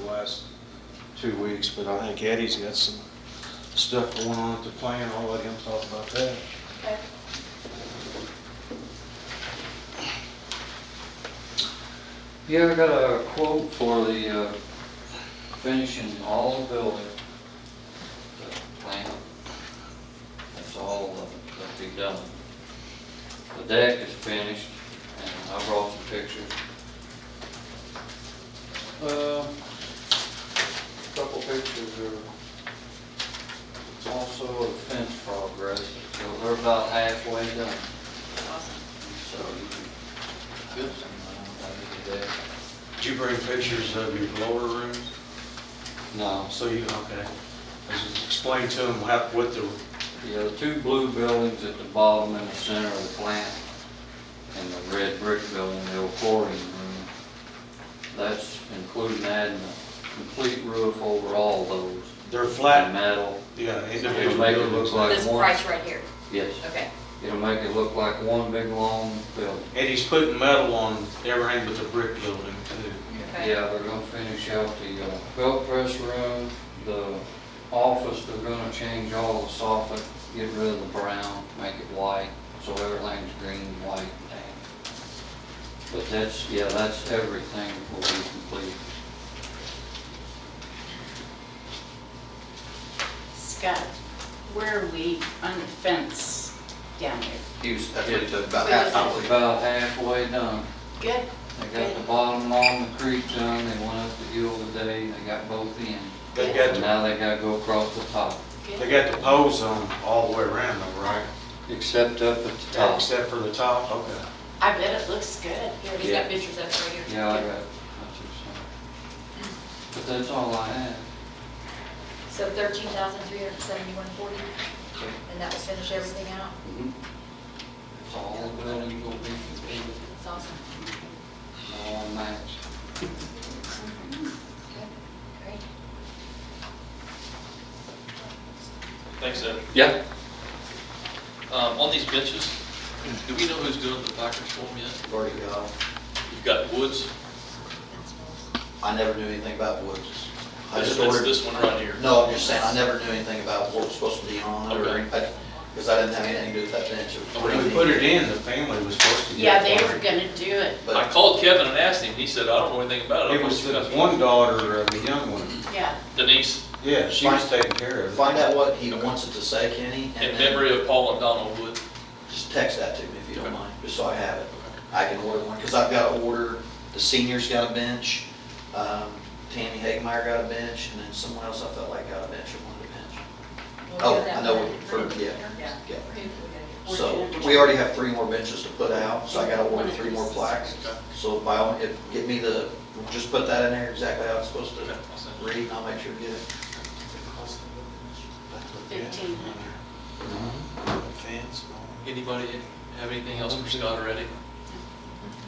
last two weeks, but I think Eddie's got some stuff going on at the plant. I'll let him talk about that. Okay. Yeah, I got a quote for the uh, finishing all the building, the plant. That's all that'll be done. The deck is finished, and I brought some pictures. Uh, Couple pictures are, it's also a fence progress, so they're about halfway done. So you can build something out of the deck. Did you bring pictures of your lower room? No, So you, okay. Just Explain to them how, what the, Yeah, the two blue buildings at the bottom and the center of the plant, and the red brick building, the old quarry room. That's including adding a complete roof over all those, they're and flat, metal. yeah, It'll individual make it look buildings. like This one, price right here, yes, okay. it'll make it look like one big long building. And he's putting metal on everything but the brick building too. Okay. Yeah, they're gonna finish out the uh, belt press room, the office, they're gonna change all the soffit, get rid of the brown, make it white, so everything's green, white, and tan. But that's, yeah, that's everything will be complete. Scott, where are we on the fence down there? Houston, That's what it it's took, about Yeah. half hour. about halfway done. Good. They got the bottom along the creek done, they went up the hill today, they got both ends. They And got, now they gotta go across the top, the- they got the poles on all the way around though, right? except up at the top. Except for the top, Oh. okay. I bet it looks good. Here, he's Yeah. got pictures of it right here. Yeah, I got, it. that's it, so. But that's all I have. So thirteen thousand three hundred seventy-one forty, That's and that will finish everything out. all the building will be completed, That's awesome. all matched. Okay, great. Thanks, Ed. Yeah. Um, on these benches, do we know who's doing the placards for them yet? Already got. You've got Woods, I never knew anything about Woods. I that's just that's ordered- this one right here. No, I'm just saying, I never knew anything about what was supposed to be on it or Okay. anything, because I didn't have anything to do with that bench. It was Okay. When pretty we put it in, the family was supposed to Yeah, get they it. were gonna do it, neat, I But called Kevin and asked him, he said, I don't know anything about it. I It was thought you the guys- one daughter of the young one. yeah. Denise, Yeah, she was taking care of it. find out what he Okay. wants it to say, Kenny, in and then memory of Paul and Donald Wood. just text that to me if you don't Okay. mind, just so I have it. I can order one, because I've got to order, the seniors got a bench, um, Tammy Hagemeyer got a bench, and then someone else I felt like got a bench or wanted a bench. We'll Oh, do that I know one. what- for- yeah. Yeah. Yeah. We're So, doing- we already have three more benches to put out, so I gotta order three more plaques. So by all, if, get me the, just put that in there exactly how it's supposed Okay, to I'll send it. read, and I'll make sure to get it. Fifteen hundred. Anybody have anything else for Scott already?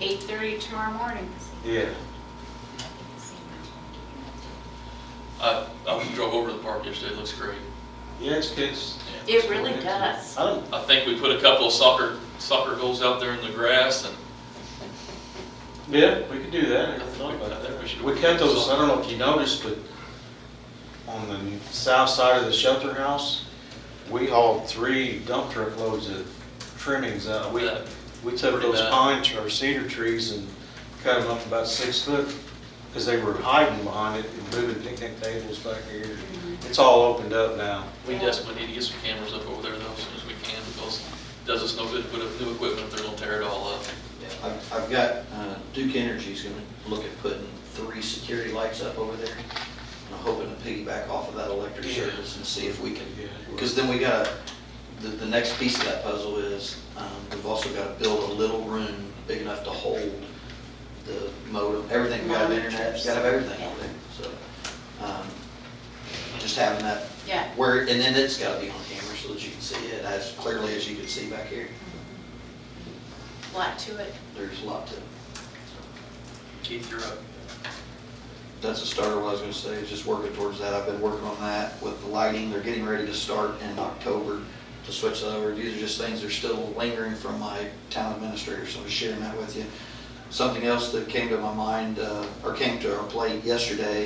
Eight thirty tomorrow morning. Yeah. I, I drove over to the park yesterday, it looks great. Yeah, it's kids. It really does. I don't, I think we put a couple of soccer, soccer goals out there in the grass and yeah, we could do that. I never thought about that. We cut those, I don't know if you noticed, but on the south side of the shelter house, we hauled three dump truck loads of trimmings out. We, that, we took Pretty those bad. pine tr- or cedar trees and cut them up about six foot because they were hiding behind it and moving picnic tables back here. It's all opened up now. we desperately need to get some cameras up over there though, as soon as we can, because it does us no good to put up new equipment if they're gonna tear it all up. I've, I've got, uh, Duke Energy's gonna look at putting three security lights up over there. And I'm hoping to piggyback off of that electric Yeah. service and see if we can, Yeah. because then we gotta, the, the next piece of that puzzle is, um, we've also gotta build a little room big enough to hold the modem, everything, we gotta have internet, we gotta have everything over there, so. um, Just having that Yeah. where, and then it's gotta be on camera so that you can see it as clearly as you can see back here. Lot to it. There's a lot to it. Keith, you're up. That's a starter, what I was gonna say, is just working towards that. I've been working on that with the lighting. They're getting ready to start in October to switch that over. These are just things that are still lingering from my town administrator, so I'm sharing that with you. Something else that came to my mind, uh, or came to our plate yesterday